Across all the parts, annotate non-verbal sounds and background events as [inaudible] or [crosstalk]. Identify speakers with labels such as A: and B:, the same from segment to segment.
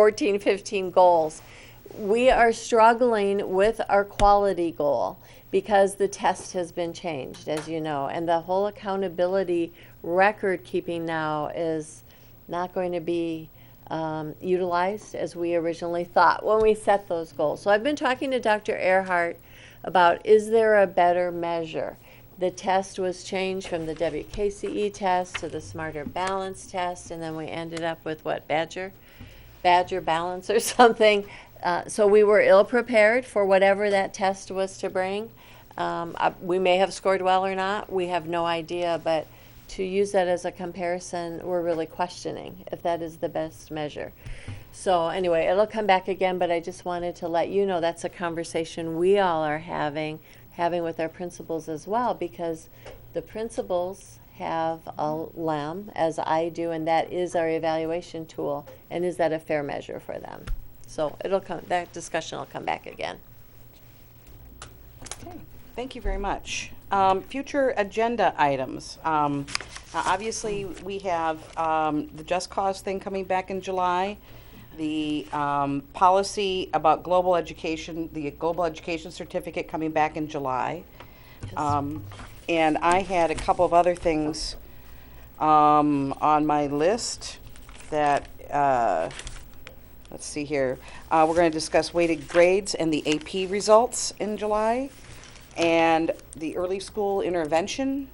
A: 14, 15 goals. We are struggling with our quality goal because the test has been changed, as you know, and the whole accountability record keeping now is not going to be um, utilized as we originally thought when we set those goals. So I've been talking to Dr. Earhart about is there a better measure? The test was changed from the WKCE E test to the Smarter Balance test, and then we ended up with what, Badger? Badger Balance or [laughs] something. Uh, so we were ill prepared for whatever that test was to bring. Um, uh, we may have scored well or not, we have no idea, but to use that as a comparison, we're really questioning if that is the best measure. So anyway, it'll come back again, but I just wanted to let you know that's a conversation we all are having, having with our principals as well, because the principals have a LEM, as I do, and that is our evaluation tool, and is that a fair measure for them? So it'll come, that discussion will come back again.
B: Okay, Thank you very much. Um, Future agenda items. Um, uh, Obviously, we have um, the Just Cause thing coming back in July, the um, policy about global education, the global education certificate coming back in July. Um, And I had a couple of other things um, on my list that uh, let's see here. Uh, we're going to discuss weighted grades and the AP results in July, and the early school intervention.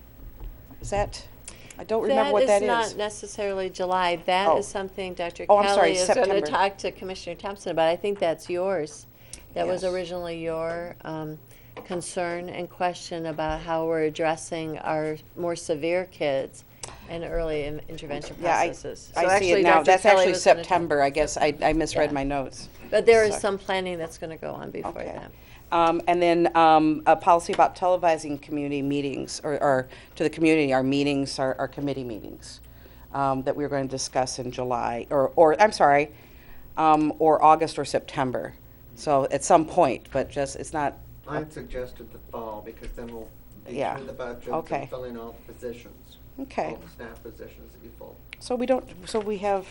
B: Is that? I don't remember what that
A: That is
B: is.
A: not necessarily July, that
B: Oh.
A: is something Dr.
B: Oh, I'm sorry,
A: Kelly is gonna
B: September.
A: talk to Commissioner Thompson about, I think that's yours. That was
B: Yes.
A: originally your, um, concern and question about how we're addressing our more severe kids and early in- intervention
B: yeah, I,
A: processes. So
B: I see
A: actually,
B: it now.
A: Dr.
B: That's
A: Kelly
B: actually
A: was gonna talk-
B: September. I guess I, I misread
A: Yeah.
B: my notes.
A: But there is
B: Sorry.
A: some planning that's gonna go on before
B: Okay.
A: that.
B: Um, and then um, a policy about televising community meetings, or, or to the community, our meetings, our, our committee meetings, um, that we were going to discuss in July, or, or I'm sorry, um, or August or September. So at some point, but just it's not.
C: I'd suggested the fall, because then we'll be
B: Yeah.
C: through the budgets
B: Okay.
C: and filling all the positions.
B: Okay.
C: All the staff positions would be full.
B: So we don't. So we have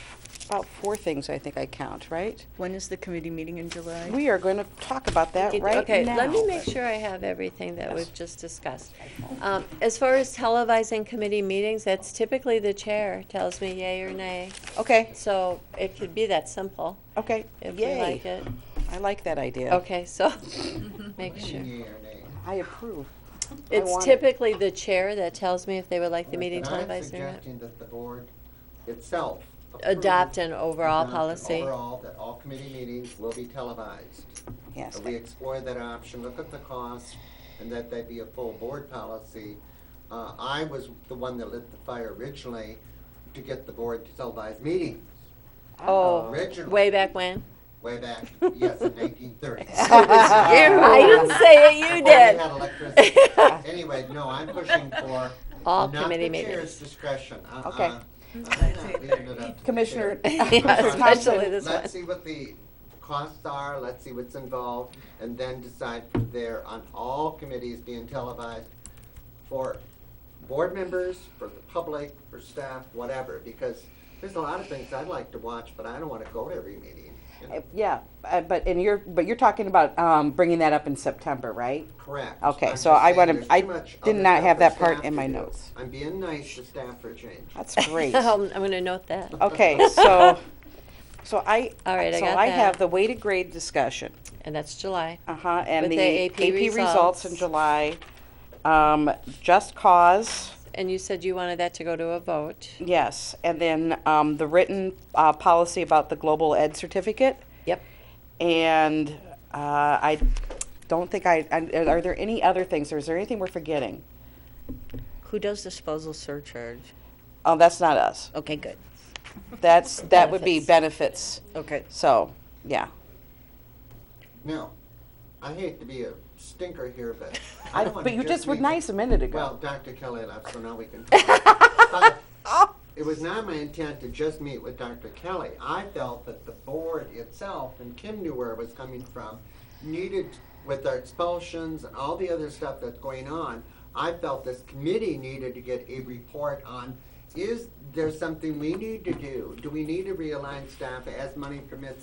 B: about four things I think I count right.
D: When is the committee meeting in July?
B: We are going to talk about that
A: Did-
B: right
A: Okay,
B: now.
A: let me make sure I have everything that
B: Yes.
A: we've just discussed. Um, As far as televising committee meetings, that's typically the chair tells me yay or nay.
B: Okay.
A: So it could be that simple,
B: Okay.
A: if we
B: Yay.
A: like it.
B: I like that idea.
A: Okay, so, [laughs] make sure.
C: Yeah, nay.
B: I approve. I
A: It's
B: want it.
A: typically the chair that tells me if they would like the meeting
C: And
A: televised or
C: I'm
A: not.
C: suggesting that the board itself. approve-
A: Adopt an overall
C: adopt an
A: policy.
C: Overall, that all committee meetings will be televised.
B: Yes.
C: That We explore that option, look at the cost, and that they be a full board policy. Uh, I was the one that lit the fire originally to get the board to televise meetings,
A: Oh,
C: originally.
A: way back
C: [laughs]
A: when?
C: Way back, yes, in nineteen
A: [laughs]
C: thirty.
A: I
C: [laughs]
A: didn't say it, you
C: Before we
A: did. [laughs]
C: had electricity. Anyway, no, I'm pushing for.
A: All committee
C: Not the
A: meetings.
C: chair's discretion, uh-uh.
B: Okay.
C: I'm not leaving it up to the
B: Commissioner-
A: [laughs]
C: chair.
A: Yeah,
B: Commissioner Thompson,
A: Especially this one.
C: Let's see what the costs are, let's see what's involved, and then decide from there on all committees being televised for board members, for the public, for staff, whatever, because there's a lot of things I'd like to watch, but I don't wanna go to every meeting. you know?
B: Yeah, uh, but and you're but you're talking about um, bringing that up in September, right?
C: Correct.
B: Okay,
C: I'm
B: so
C: just
B: I
C: saying
B: wanna-
C: there's
B: I
C: too much
B: did
C: other
B: not
C: stuff
B: have
C: for
B: that part
C: staff
B: in
C: to
B: my
C: do.
B: notes.
C: I'm being nice to staff for a change.
A: [laughs]
B: That's great.
A: Um,
B: Oh.
A: I'm gonna note that.
B: okay, so so I
A: All right, I
B: so
A: got
B: I have
A: that.
B: the weighted grade discussion,
A: And that's July.
B: uh huh, and
A: With
B: the,
A: the AP results.
B: in July. Um, just cause,
A: And you said you wanted that to go to a vote.
B: yes, and then um, the written uh, policy about the global ed certificate,
A: Yep.
B: and uh, I don't think I, I are there any other things? Or is there anything we're forgetting?
D: Who does disposal surcharge?
B: Oh, that's not us.
D: Okay, good.
B: That's, that would be benefits,
D: Okay.
B: so, yeah.
C: Now, I hate to be a stinker here, but
B: [laughs]
C: I
B: I,
C: don't wanna
B: but you just were
C: leave
B: nice a minute
C: it. Well,
B: ago.
C: Dr. Kelly left, so now we can. But
B: Oh,
C: It was not my intent to just meet with Dr. Kelly. I felt that the board itself, and Kim knew where it was coming from, needed, with our expulsions and all the other stuff that's going on, I felt this committee needed to get a report on, is there something we need to do? Do we need to realign staff as money permits